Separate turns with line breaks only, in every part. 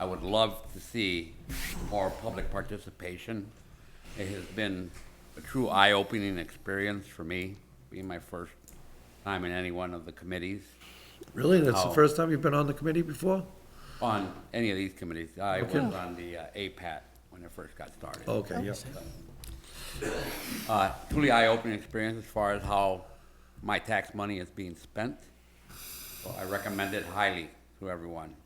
I would love to see more public participation. It has been a true eye-opening experience for me, being my first time in any one of the committees,
Really? That's the
Oh.
first time you've been on the committee before?
on any of these committees. I was
Okay.
on the uh, APAT when it first got started.
Oh,
Oh,
Okay, yeah.
uh, truly eye-opening experience as far as how my tax money is being spent. So I recommend it highly to everyone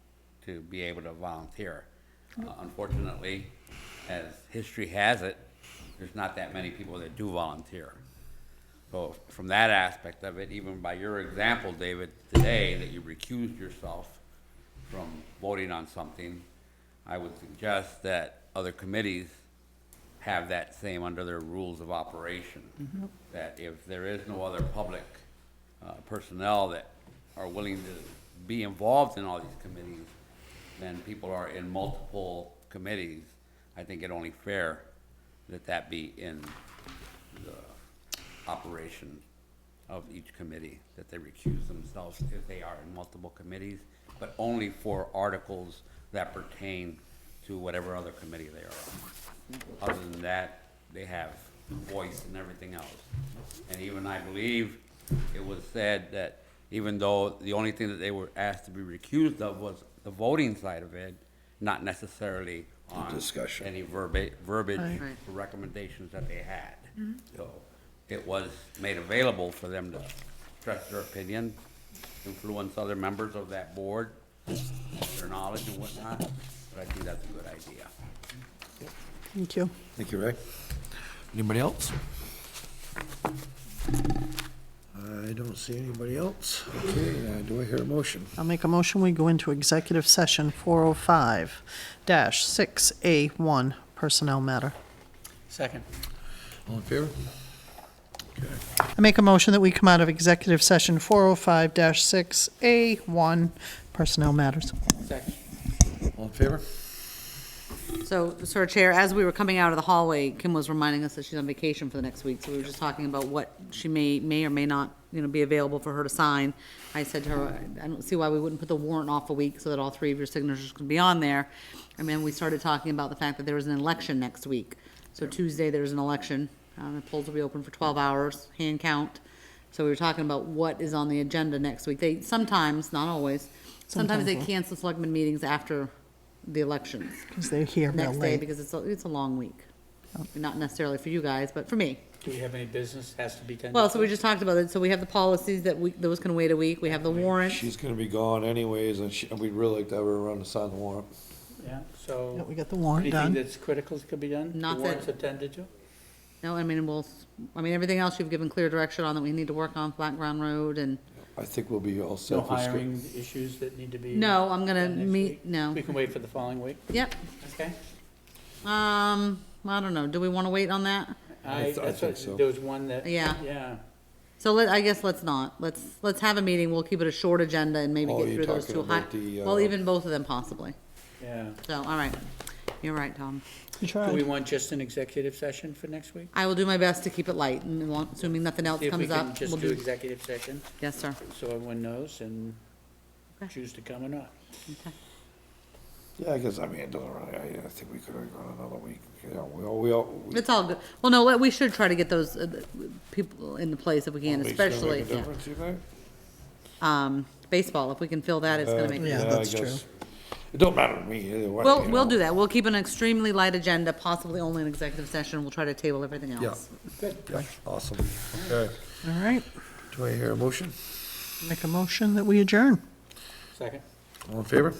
to be able to volunteer. Uh, Unfortunately, as history has it, there's not that many people that do volunteer. So from that aspect of it, even by your example, David, today, that you recused yourself from voting on something, I would suggest that other committees have that same under their rules of operation. That if there is no other public uh, personnel that are willing to be involved in all these committees, then people are in multiple committees. I think it only fair that that be in the operation of each committee, that they recuse themselves if they are in multiple committees, but only for articles that pertain to whatever other committee they are on. Other than that, they have voice and everything else. And even I believe it was said that even though the only thing that they were asked to be recused of was the voting side of it, not necessarily on
discussion.
any verba- verbiage for recommendations that they had. So it was made available for them to express their opinion, influence other members of that board, their knowledge and whatnot, but I think that's a good idea.
Thank you.
Thank you, Ray.
Anybody else?
I don't see anybody else. Okay, uh, do I hear a motion?
I'll make a motion, we go into executive session 405-6A1 Personnel Matter.
Second.
All in favor?
I make a motion that we come out of executive session 405-6A1 Personnel Matters.
Second.
All in favor?
So, Sir Chair, as we were coming out of the hallway, Kim was reminding us that she's on vacation for the next week, so we were just talking about what she may, may or may not, you know, be available for her to sign. I said to her, I don't see why we wouldn't put the warrant off a week so that all three of your signatures can be on there. And then we started talking about the fact that there was an election next week. So Tuesday, there's an election, um, the polls will be open for twelve hours, hand count. So we were talking about what is on the agenda next week. They, sometimes, not always, sometimes they cancel selectmen meetings after the elections
Because they're here real
next day
late.
because it's a, it's a long week. Not necessarily for you guys, but for me.
Do we have any business has to be done?
Well, so we just talked about it. So we have the policies that we, those can wait a week. We have the warrant.
She's gonna be gone anyways, and she, and we'd really like to have her around to sign the warrant.
Yeah,
Yeah, We
so
got the warrant
anything
done.
that's critical could be done?
Not that-
The warrants attended to?
No, I mean, we'll, s- I mean, everything else you've given clear direction on that we need to work on Flat Ground Road and,
I think we'll be all set.
No
for sc-
hiring issues that need to be?
no, I'm gonna
done next
meet,
week?
no.
We can wait for the following week,
Yep.
okay?
Um, I don't know. Do we want to wait on that?
I th- I
that's
think
what-
so.
There was one that.
Yeah.
Yeah.
So let, I guess let's not. Let's, let's have a meeting. We'll keep it a short agenda and maybe
Oh,
get
you're
through those
talking
two. high.
about the,
Well,
uh,
even both of them possibly.
Yeah.
So, all right. You're right, Tom.
You
Do we
tried.
want just an executive session for next week?
I will do my best to keep it light, and we'll- assuming nothing else
See if we
comes
can
up, we'll
just do
do,
executive session,
yes, sir.
so everyone knows and
Okay.
choose to come or not.
Yeah, I guess, I mean, it doesn't really, I, I think we could have gone another week, you know, we all, we all. we-
It's all good. Well, no, what- we should try to get those uh, people in the place if we can,
weeks gonna make
especially,
a
yeah.
difference, you think?
um, baseball, if we can fill that, it's gonna make.
Yeah,
I
that's true.
guess. It don't matter to me either way.
We'll,
you
we'll
know.
do that. We'll keep an extremely light agenda, possibly only an executive session. We'll try to table everything else.
Yeah, awesome. Okay,
All right,
do I hear a motion?
make a motion that we adjourn.
Second?
All in favor?